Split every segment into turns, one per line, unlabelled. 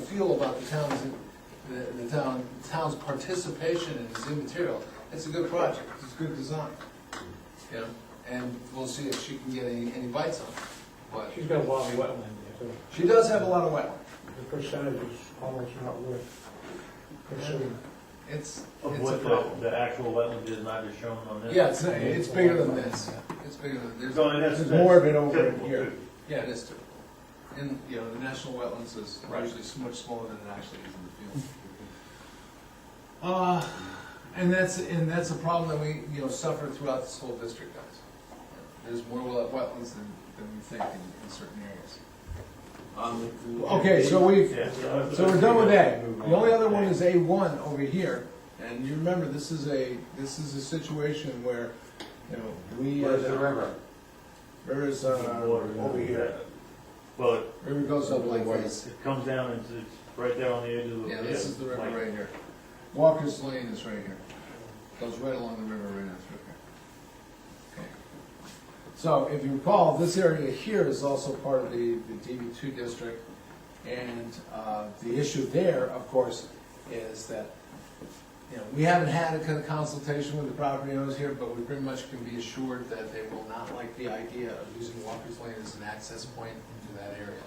feel about the town's, the the town, town's participation in this immaterial, it's a good project, it's a good design. You know, and we'll see if she can get any, any bites on it, but
She's got a lot of wetland there,
she does have a lot of wetland.
so the percentage is almost not worth considering.
It's,
Of
it's a
what the,
problem.
the actual wetland is not just shown on this?
Yeah, it's, it's bigger than this, it's bigger than, there's,
So that's.
There's more of it over
typical,
here.
too.
yeah, it is too. And, you know, the national wetlands is actually so much smaller than it actually is in the field. Uh, and that's, and that's a problem that we, you know, suffer throughout this whole district, guys. There's more wet- wetlands than, than we think in, in certain areas.
Um,
Okay, so we've,
Yeah,
so we're done with A. The only other one is A one over here, and you remember, this is a, this is a situation where, you know, we.
Where's the river?
River's, uh, over here.
Well,
River goes up like this.
it comes down and it's right there on the edge of the.
Yeah, this is the river
like-
right here. Walker's Lane is right here. Goes right along the river right now through here. Okay.
So if you recall, this area here is also part of the, the DB
DB two district,
And uh, the issue there, of course, is that, you know, we haven't had a kind of consultation with the property owners here, but we pretty much can be assured that they will not like the idea of using Walker's Lane as an access point into that area.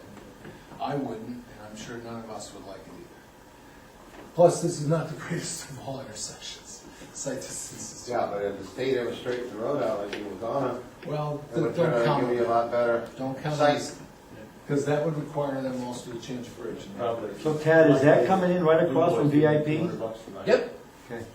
I wouldn't, and I'm sure none of us would like it either. Plus, this is not the greatest of all intersections, site distances.
Yeah, but if the state ever straightened the road out like it was on
Well,
it, it
don't
would turn
count
out to
on
be a
that,
lot better.
don't count on
Site.
because that would require them also to change bridge. and
Probably.
So Tad, is that coming in right across from VIP?
Yep.
Okay.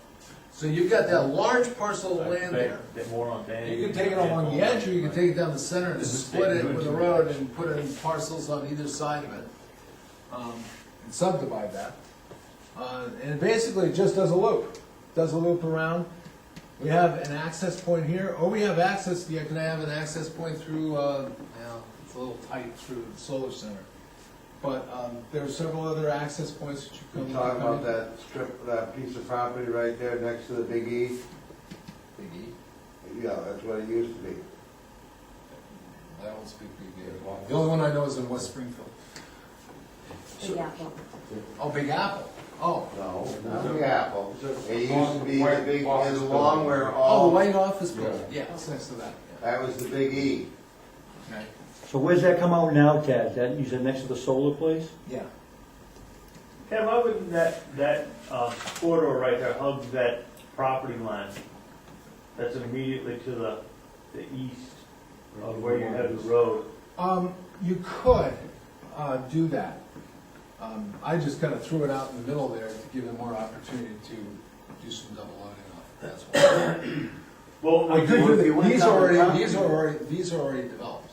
So you've got that large parcel of
Like,
land there.
Get more on Dan.
You can take it along the edge, or you can take it down the center and split it with a road and put in parcels on either side of it. um,
and subdivide that. Uh, and basically, it just does a loop, does a loop around. We have an access point here, or we have access,
Yeah,
yeah,
can I have an access point through, uh, yeah, it's a little tight through the solar center.
but, um, there are several other access points that you
We're
can.
talking about that strip, that piece of property right there next to the Big E.
Big E,
Yeah, that's what it used to be.
I don't speak Big E. The only one I know is in West Springfield.
Big Apple.
Oh, Big Apple, oh.
No, not the Apple. It used to be the big, E, it's along where
Oh, the
all,
white office building, yeah, it's next to that,
that was the Big E.
yeah. Okay.
So where's that come out now, Tad? That, you said next to the solar place?
Yeah,
Ted, why wouldn't that, that uh, corridor right there hug that property line? That's immediately to the, the east of where you have the road.
um, you could, uh, do that. Um, I just kinda threw it out in the middle there to give them more opportunity to do some double loading off, that's why.
Well,
I could do
Well, if you
that,
went
these
down
are
the
already,
top-
these are already, these are already developed,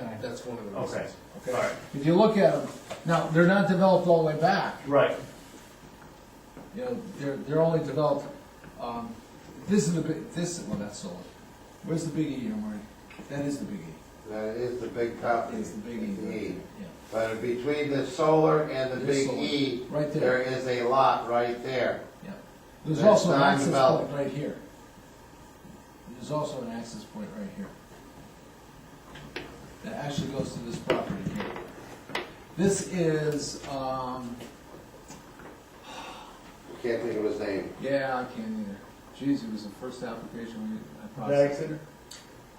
Yeah, That's one of the
Okay,
reasons.
all
okay?
right,
If you look at them, now, they're not developed all the way back,
right.
You know, they're, they're only developed, um, this is the big, this, well, that's solar. Where's the big E, you That is the big E.
That is the big property.
It's the big E.
The E.
Yeah.
But between the solar and the
There's
Big
solar.
E,
Right there,
there is a lot right there.
yeah. There's
That's
also an
not
access point
developed.
right here. There's also an access point right here. That actually goes to this property here. This is, um,
Can't think of his name.
yeah, I can't either. Geez, it was the first application we, I processed.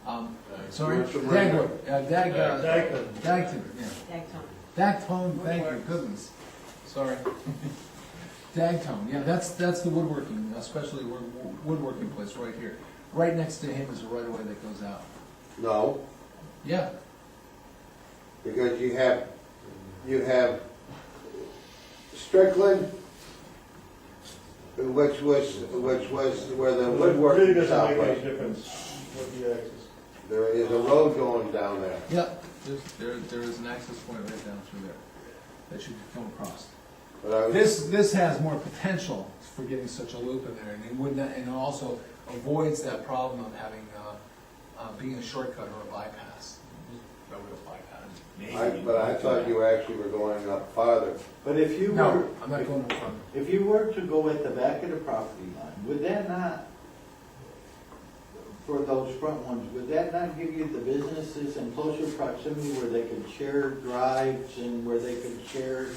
Um, sorry,
Commercial right
Dagwood, uh, Dag, uh, Dagton, yeah.
Dayton.
Dactone, thank you, goodness, sorry. Dactone, yeah, that's, that's the woodworking, especially wo- wo- woodworking place right here. Right next to him is a right of way that goes out.
No,
Yeah,
because you have, you have Strickland, which was, which was where the
Really
woodworking shop
doesn't make any
was.
difference what the axis.
There is a road going down there.
yeah, there's, there, there is an access point right down through there that you can come across.
But I was,
This, this has more potential for getting such a loop in there, and it would not, and also avoids that problem of having, uh, uh, being a shortcut or a bypass. Railroad bypass.
I, but I thought you actually were going up farther.
But if you were,
No, I'm not going to front.
if you were to go at the back of the property line, would that not, for those front ones, would that not give you the businesses in closer proximity where they could share drives and where they could share